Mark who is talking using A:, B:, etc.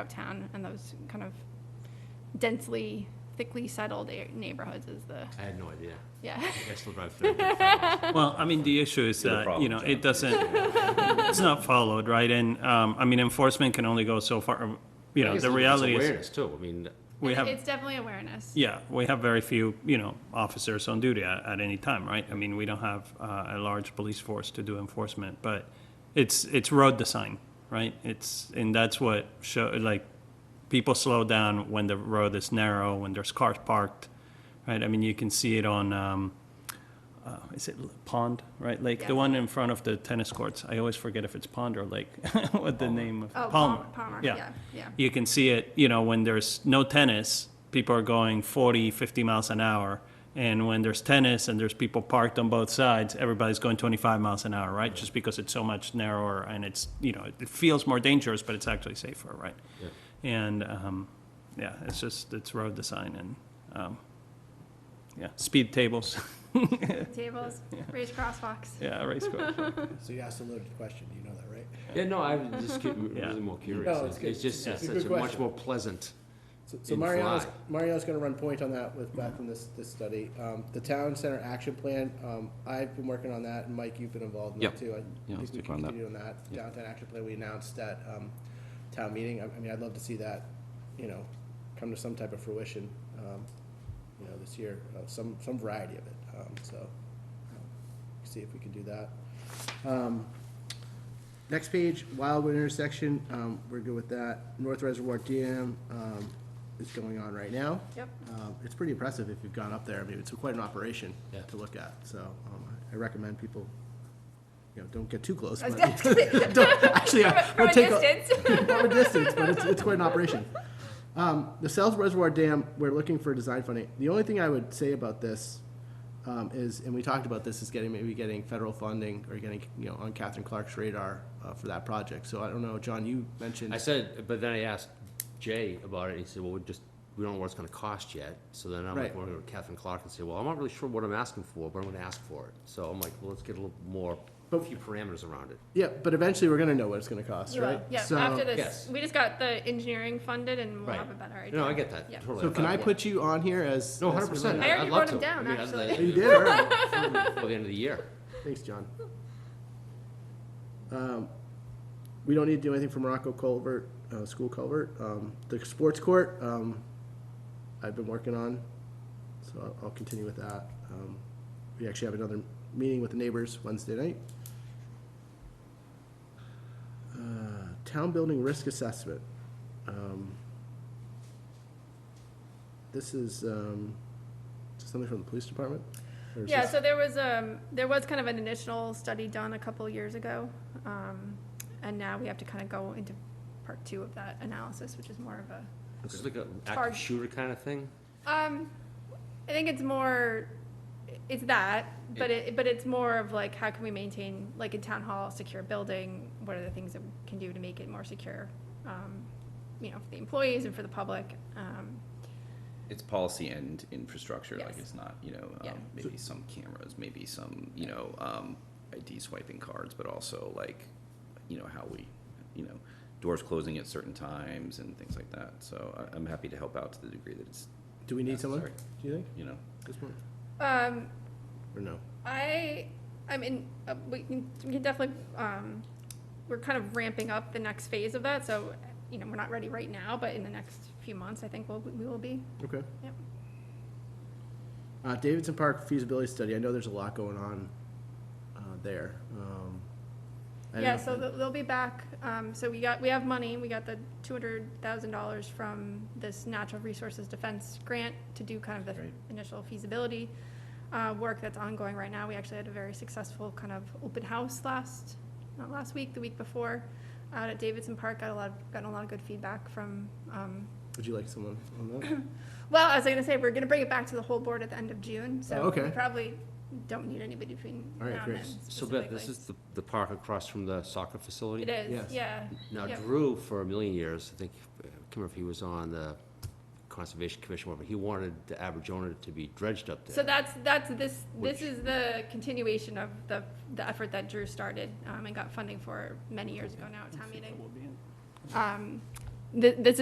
A: of town and those kind of densely, thickly settled a- neighborhoods is the,
B: I had no idea.
A: yeah.
B: I guess they'll drive through. Well,
C: Well, I mean, the issue is
D: the
C: that, you
D: problem,
C: know,
D: John.
C: it doesn't, it's not followed, right? And, um, I mean, enforcement can only go so far, you know, the reality is,
B: Awareness too, I mean,
C: we have,
A: It's definitely awareness.
C: yeah, we have very few, you know, officers on duty at, at any time, right? I mean, we don't have, uh, a large police force to do enforcement, but it's, it's road design, right? It's, and that's what show, like, people slow down when the road is narrow, when there's cars parked, right? I mean, you can see it on, um, uh, is it l- pond, right? Like
A: Yeah.
C: the one in front of the tennis courts. I always forget if it's pond or lake, what the name of
A: Oh, Palmer, Palmer, yeah, yeah.
C: You can see it, you know, when there's no tennis, people are going 40, 50 miles an hour. And when there's tennis and there's people parked on both sides, everybody's going 25 miles an hour, right? Just because it's so much narrower and it's, you know, it feels more dangerous, but it's actually safer, right? And um, yeah, it's just, it's road design and um, yeah, speed tables.
A: Tables, raised crosswalks.
C: Yeah, race course.
E: So you asked a loaded question, you know that, right?
B: yeah, no, I was just cu-
C: Yeah.
B: really more curious.
E: No, it's
B: It's it's
E: good.
B: just
E: Yeah.
B: it's
E: It's a good
B: such a much
E: question.
B: more pleasant.
E: So- So
B: In
E: Mariano's,
B: Fly.
E: Mariano's gonna run point on that with Beth in this, this study. Um, the town center action plan, um, I've been working on that, and Mike, you've been involved in
B: Yep.
E: that too. I
D: Yeah,
E: think
D: let's
E: we
D: take
E: can
D: on that.
E: continue on that. Downtown action plan, we announced at, um, town meeting. I, I mean, I'd love to see that, you know, come to some type of fruition, um, you know, this year, uh, some, some variety of it, um, so. um, See if we can do that. Um, Next page, Wildwood intersection, um, we're good with that. North Reservoir Dam, um, is going on right now.
A: Yep.
E: Um, it's pretty impressive if you've gone up there. I mean, it's quite an operation
B: Yeah.
E: to look at, so, um, I recommend people, you know, don't get too close.
A: I was
E: but-
A: gonna say-
E: Don't- Actually, I-
A: From
E: we'll
A: a
E: take a-
A: distance.
E: from a distance, but it's, it's quite an operation. Um, the South Reservoir Dam, we're looking for design funding. The only thing I would say about this um, is, and we talked about this, is getting, maybe getting federal funding or getting, you know, on Catherine Clark's radar uh, for that project. So I don't know, John, you mentioned.
B: I said, but then I asked Jay about it, and he said, well, we just, we don't know what it's gonna cost yet. So then I'm like,
E: Right.
B: we're gonna Catherine Clark and say, well, I'm not really sure what I'm asking for, but I'm gonna ask for it. So I'm like, well, let's get a little more, a
E: But-
B: few parameters around it.
E: Yeah, but eventually we're gonna know what it's gonna cost, right?
A: Yeah,
E: So-
A: after
B: Yes.
A: this, we just got the engineering funded and we'll have a better idea.
B: No, I get that,
A: Yeah.
B: totally.
E: So can I
B: thought-
E: put you on here as?
B: No,
E: as-
B: hundred percent.
A: I already wrote 'em down, actually.
E: You did, all right.
B: By the end of the year.
E: Thanks, John. Um, We don't need to do anything for Morocco Culvert, uh, School Culvert. Um, The sports court, um, I've been working on, so I'll- I'll continue with that. Um, We actually have another meeting with the neighbors Wednesday night. Uh, Town building risk assessment. Um, This is um, something from the police department? Or is
A: Yeah,
E: this-
A: so there was, um, there was kind of an initial study done a couple years ago. Um, and now we have to kind of go into part two of that analysis, which is more of a
B: It's just like a
A: hard.
B: active shooter kind of thing.
A: Um, I think it's more, it's that, but it, but it's more of like, how can we maintain, like in town hall, secure building? What are the things that we can do to make it more secure, um, you know, for the employees and for the public? Um,
D: It's policy and infrastructure, like
A: Yes.
D: it's not, you know,
A: Yeah.
D: um, maybe some cameras, maybe some, you know, um, ID swiping cards, but also like, you know, how we, you know, doors closing at certain times and things like that, so I, I'm happy to help out to the degree that it's,
E: Do we need someone,
D: Necessary.
E: do you think,
D: you know.
E: this month?
A: Um,
E: Or no?
A: I, I mean, uh, we can, we can definitely, um, we're kind of ramping up the next phase of that, so, you know, we're not ready right now, but in the next few months, I think we'll, we will be.
E: Okay.
A: Yep.
E: Uh, Davidson Park feasibility study, I know there's a lot going on, uh, there, um. I don't
A: Yeah,
E: know.
A: so they'll, they'll be back, um, so we got, we have money, we got the two hundred thousand dollars from this natural resources defense grant to do kind of the
E: Great.
A: initial feasibility, uh, work that's ongoing right now, we actually had a very successful kind of open house last, not last week, the week before, out at Davidson Park, got a lot, of- gotten a lot of good feedback from, um,
E: Would you like someone on that?
A: well, I was gonna say, we're gonna bring it back to the whole board at the end of June,
E: Oh,
A: so we
E: okay.
A: probably don't need anybody between
E: All right,
A: now and
E: great.
A: then
B: So Beth, this
A: specifically.
B: is the, the park across from the soccer facility?
A: It
E: Yes.
A: is, yeah.
B: Now
A: Yep.
B: Drew, for a million years, I think, uh, I can't remember if he was on the Conservation Commission, or whatever, he wanted the Aberjona to be dredged up
A: So
B: there.
A: that's, that's, this, this
B: Which-
A: is the continuation of the, the effort that Drew started, um, and got funding for many years ago now at town meeting. Um, Th- this